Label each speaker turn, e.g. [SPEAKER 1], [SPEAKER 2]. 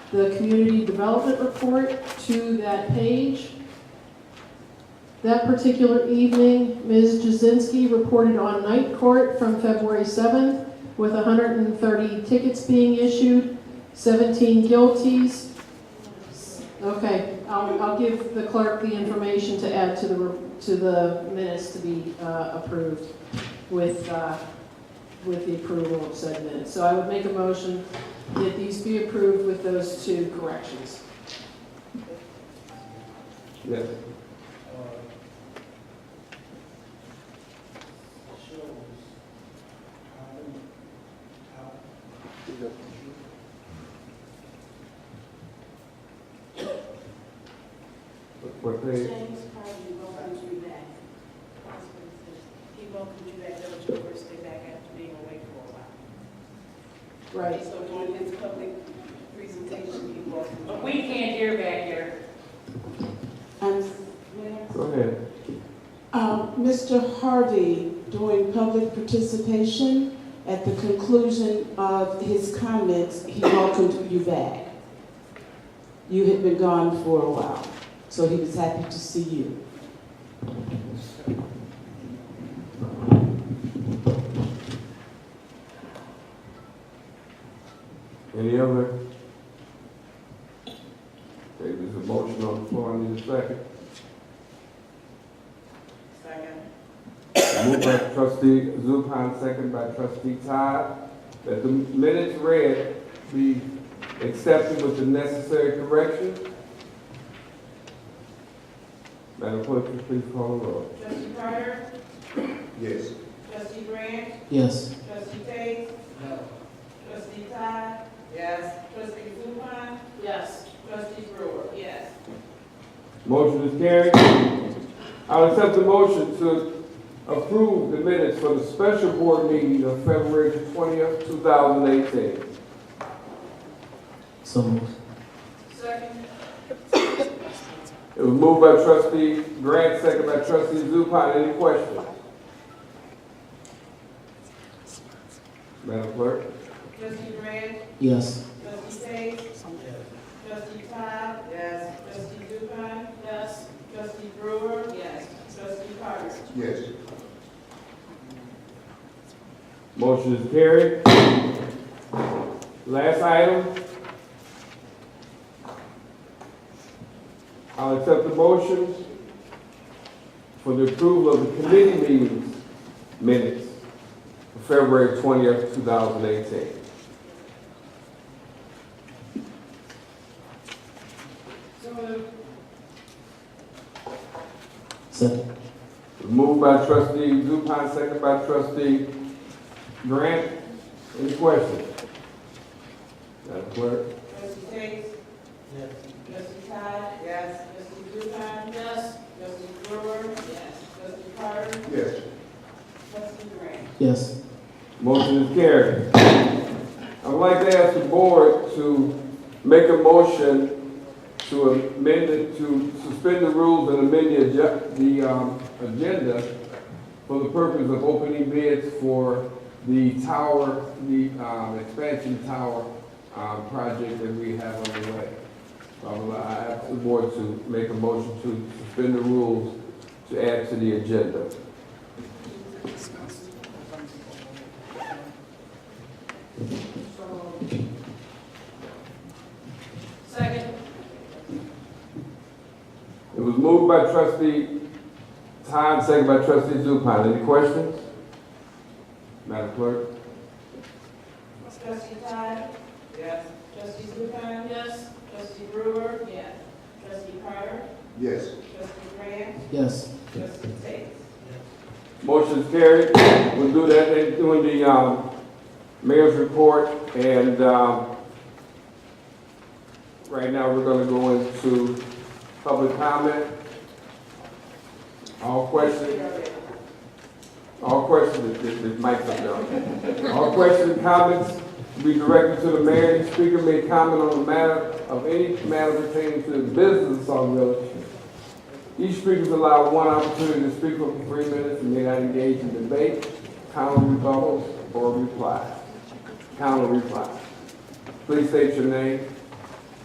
[SPEAKER 1] the community development report to that page. That particular evening, Ms. Jazinski reported on night court from February 7th with 130 tickets being issued, 17 guilties. Okay, I'll, I'll give the clerk the information to add to the, re- to the minutes to be uh, approved with, uh, with the approval of said minutes. So I would make a motion that these be approved with those two corrections.
[SPEAKER 2] Yeah. What
[SPEAKER 3] James
[SPEAKER 2] page?
[SPEAKER 3] Carter welcomes you back. That's what it says. He welcomed you back, that was your first day back after being away for a while.
[SPEAKER 1] Right.
[SPEAKER 3] So during his public presentation, he welcomed.
[SPEAKER 4] But we can't hear back here.
[SPEAKER 5] Um,
[SPEAKER 2] Go ahead.
[SPEAKER 5] Uh, Mr. Harvey, during public participation, at the conclusion of his comments, he welcomed you back. You had been gone for a while, so he was happy to see you.
[SPEAKER 2] Any other? Okay, there's a motion on the floor, I need a second.
[SPEAKER 3] Second.
[SPEAKER 2] Moved by trustee Zupan, second by trustee Todd, that the minutes read be accepted with the necessary correction. Madam Clerk, would you please call the roll.
[SPEAKER 3] Trustee Carter,
[SPEAKER 2] Yes.
[SPEAKER 3] trustee Grant,
[SPEAKER 5] Yes.
[SPEAKER 3] trustee Tate. No. Trustee Todd. Yes. Trustee Zupan,
[SPEAKER 1] Yes.
[SPEAKER 3] trustee Brewer. Yes.
[SPEAKER 2] Motion is carried. I'll accept the motion to approve the minutes for the special board meeting of February twentieth, two thousand eighteen.
[SPEAKER 5] So
[SPEAKER 3] Second.
[SPEAKER 2] It was moved by trustee Grant, second by trustee Zupan. Any questions? Madam Clerk?
[SPEAKER 3] Trustee Grant,
[SPEAKER 5] Yes.
[SPEAKER 3] trustee Tate. Trustee Todd. Yes. Trustee Zupan. Yes. Trustee Brewer. Yes. Trustee Carter.
[SPEAKER 2] Yes. Motion is carried. Last item. I'll accept the motion for the approval of the committee meetings minutes for February twentieth, two thousand eighteen.
[SPEAKER 1] So moved.
[SPEAKER 5] Second.
[SPEAKER 2] Moved by trustee Zupan, second by trustee Grant. Any questions? Madam Clerk?
[SPEAKER 3] Trustee Tate. Yes. Trustee Todd. Yes. Trustee Zupan. Yes. Trustee Brewer. Yes. Trustee Carter.
[SPEAKER 2] Yes.
[SPEAKER 3] Trustee Grant.
[SPEAKER 5] Yes.
[SPEAKER 2] Motion is carried. I'd like to ask the board to make a motion to amend it, to suspend the rules and amend the, adju- the, um, agenda for the purpose of opening bids for the tower, the, um, expansion tower, um, project that we have on the way. So I would- I ask the board to make a motion to suspend the rules to add to the agenda.
[SPEAKER 1] Second.
[SPEAKER 2] It was moved by trustee Todd, second by trustee Zupan. Any questions? Madam Clerk?
[SPEAKER 3] Trustee Todd. Yes. Trustee Zupan.
[SPEAKER 1] Yes.
[SPEAKER 3] Trustee Brewer. Yes. Trustee Carter.
[SPEAKER 2] Yes.
[SPEAKER 3] Trustee Grant.
[SPEAKER 5] Yes.
[SPEAKER 3] Trustee Tate.
[SPEAKER 2] Motion's carried. We'll do that, in doing the, um, mayor's report, and, um, right now, we're gonna go into public comment. All questions, all questions, this, this mic's up there. All questions and comments be directed to the mayor, the speaker may comment on the matter of any matter pertaining to the business of Song Village. Each speaker is allowed one opportunity to speak for three minutes and may not engage in debate, counter rebuttals, or reply. Counter reply. Please state your name